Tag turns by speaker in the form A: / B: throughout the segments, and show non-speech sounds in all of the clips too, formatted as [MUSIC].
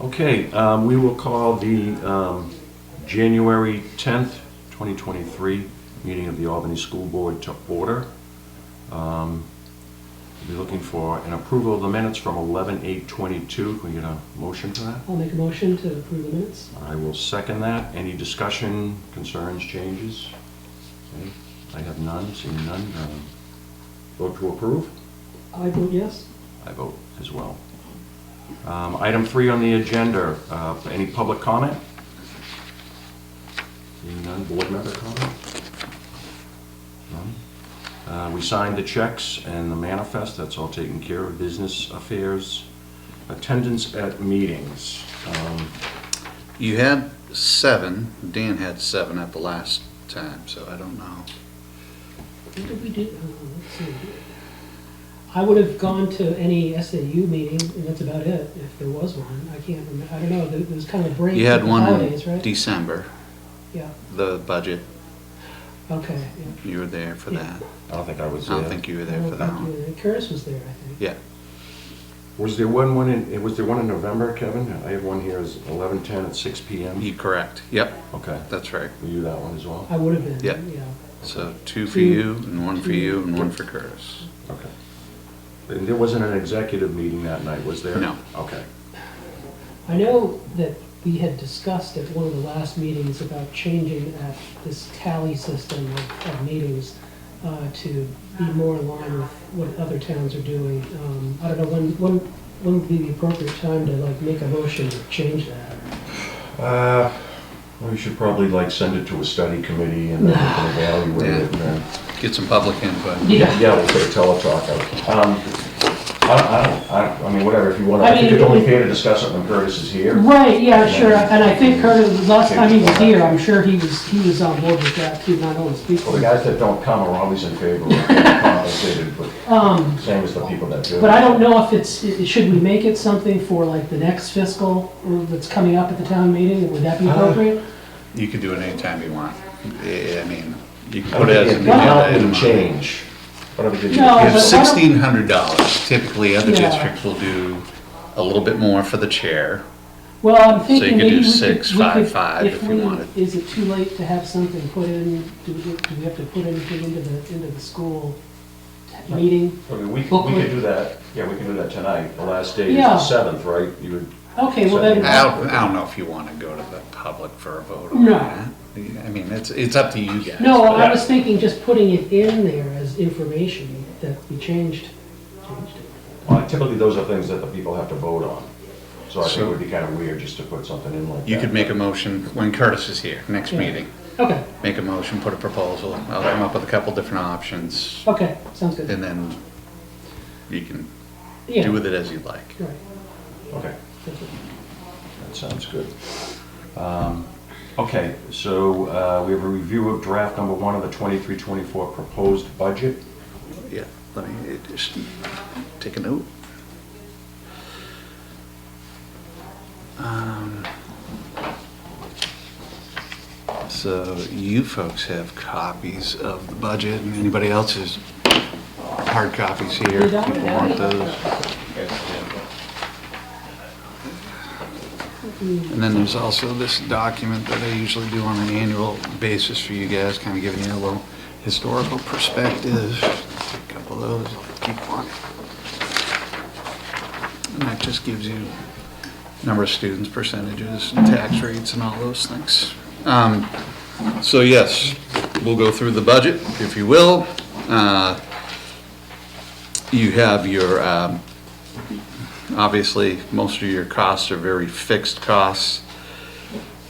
A: Okay, um, we will call the um, January 10th, 2023, meeting of the Albany School Board to order. Um, We'll Be looking for an approval of the minutes from 11/8/22. Can we get a motion for that?
B: I'll make a motion to approve the minutes.
A: I will second that. Any discussion, concerns, changes? Okay, I have none, seeing none. um, Vote to approve?
B: I vote yes.
A: I vote as well. Um, Item three on the agenda, uh, any public comment? Seeing none, board member comment? None? Uh, We signed the checks and the manifest, that's all taken care of, business affairs, attendance at meetings. Um,
C: You had seven, Dan had seven at the last time, so I don't know.
B: What did we do? Uh, let's see. I would have gone to any SAU meeting, and that's about it, if there was one. I can't remember, I don't know, there there was kind of a break.
C: You had
B: with the
C: one
B: Holidays,
C: in
B: right?
C: December,
B: Yeah,
C: the budget,
B: okay, yeah.
C: you were there for that.
A: I don't think I was
C: I don't
A: there.
C: think you were there for that one.
B: Curtis was there, I think.
C: Yeah,
A: Was there one, one in, was there one in November, Kevin? I have one here, is 11:10 at six PM?
C: you correct. Yep,
A: Okay,
C: that's right.
A: were you that one as well?
B: I would have been,
C: Yeah.
B: yeah.
C: So two for you and one for you and one for Curtis.
A: Okay. And there wasn't an executive meeting that night, was there?
C: No.
A: Okay.
B: I know that we had discussed at one of the last meetings about changing that, this tally system of, of meetings uh, to be more in line with what other towns are doing. Um, I don't know, when, when, when would be the appropriate time to like make a motion to change that?
A: Uh, we should probably like send it to a study committee and then we
B: [SIGHS]
A: can evaluate it and then.
C: Get some public input.
B: Yeah,
A: Yeah, we'll take a teletalk. out. Um, I, I don't, I, I mean, whatever, if you want, I
B: I
A: think
B: mean,
A: it's only
B: we-
A: fair to discuss it when Curtis is here.
B: right, yeah, sure, and I think Curtis, last time he was here, I'm sure he was, he was on board with that too, not only speaking.
A: Well, the guys that don't come are always in favor of being compensated, but same as the people that do.
B: Um, But I don't know if it's, i- should we make it something for like the next fiscal or that's coming up at the town meeting? Would that be appropriate?
C: You can do it anytime you want. Yeah, I mean, you can
A: I don't
C: put it
A: think
C: as
A: it can
C: an agenda
A: help
C: item.
A: them
C: You
A: change. But I think it-
B: No,
C: have
B: but-
C: sixteen hundred dollars. Typically, other
B: Yeah.
C: districts will do a little bit more for the chair.
B: Well, I'm
C: you
B: thinking
C: could
B: maybe
C: do
B: we could.
C: six,
B: we
C: five,
B: could-
C: five if you
B: we-
C: wanted.
B: Is it too late to have something put in? Do we, do we have to put anything into the, into the school meeting?
A: I mean, we, we
B: Booklet.
A: could do that, yeah, we can do that tonight. The last day is
B: Yeah.
A: the seventh, right? You would
B: Okay, well then,
C: I don't, I don't know if you want to go to the public for a vote on
B: No.
C: that. I mean, it's, it's up to you guys.
B: no, I
C: but-
B: was thinking just putting it in there as information that we changed. changed it.
A: Well, uh, Typically, those are things that the people have to vote on. So I think it
C: So-
A: would be kind of weird just to put something in like that.
C: You could make a motion when Curtis is here, next
B: Yeah.
C: meeting.
B: Okay,
C: Make a motion, put a proposal. I'll come up with a couple different options
B: okay, sounds good.
C: and then you can
B: Yeah,
C: do with it as you like.
B: right,
A: Okay,
B: thank you.
A: that sounds good. Um, Okay, so uh, we have a review of draft number one of the 23-24 proposed budget.
C: Yeah, let me just take a note. Um, So you folks have copies of the budget and anybody else has hard copies here.
B: We
C: if
B: don't
C: People
B: have
C: want
B: any.
C: those. And then there's also this document that I usually do on an annual basis for you guys, kind of giving you a little historical perspective. Take a couple of those, I'll keep one. And that just gives you number of students, percentages, tax rates, and all those things. Um, So yes, we'll go through the budget, if you will. Uh, You have your um, Obviously, most of your costs are very fixed costs.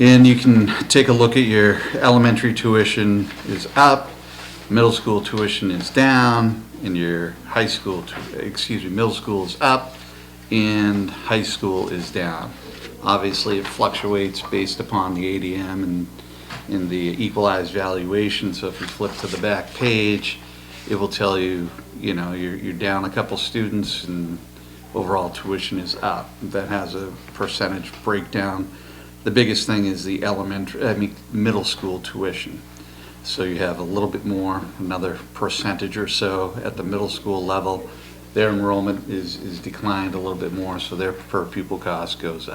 C: And you can take a look at your elementary tuition is up, middle school tuition is down, and your high school, tu- excuse me, middle school is up, and high school is down. Obviously, it fluctuates based upon the ADM and, and the equalized valuation, so if you flip to the back page, it will tell you, you know, you're, you're down a couple students and overall tuition is up. That has a percentage breakdown. The biggest thing is the elementary, I mean, middle school tuition. So you have a little bit more, another percentage or so at the middle school level. Their enrollment is, is declined a little bit more, so their per pupil cost goes up.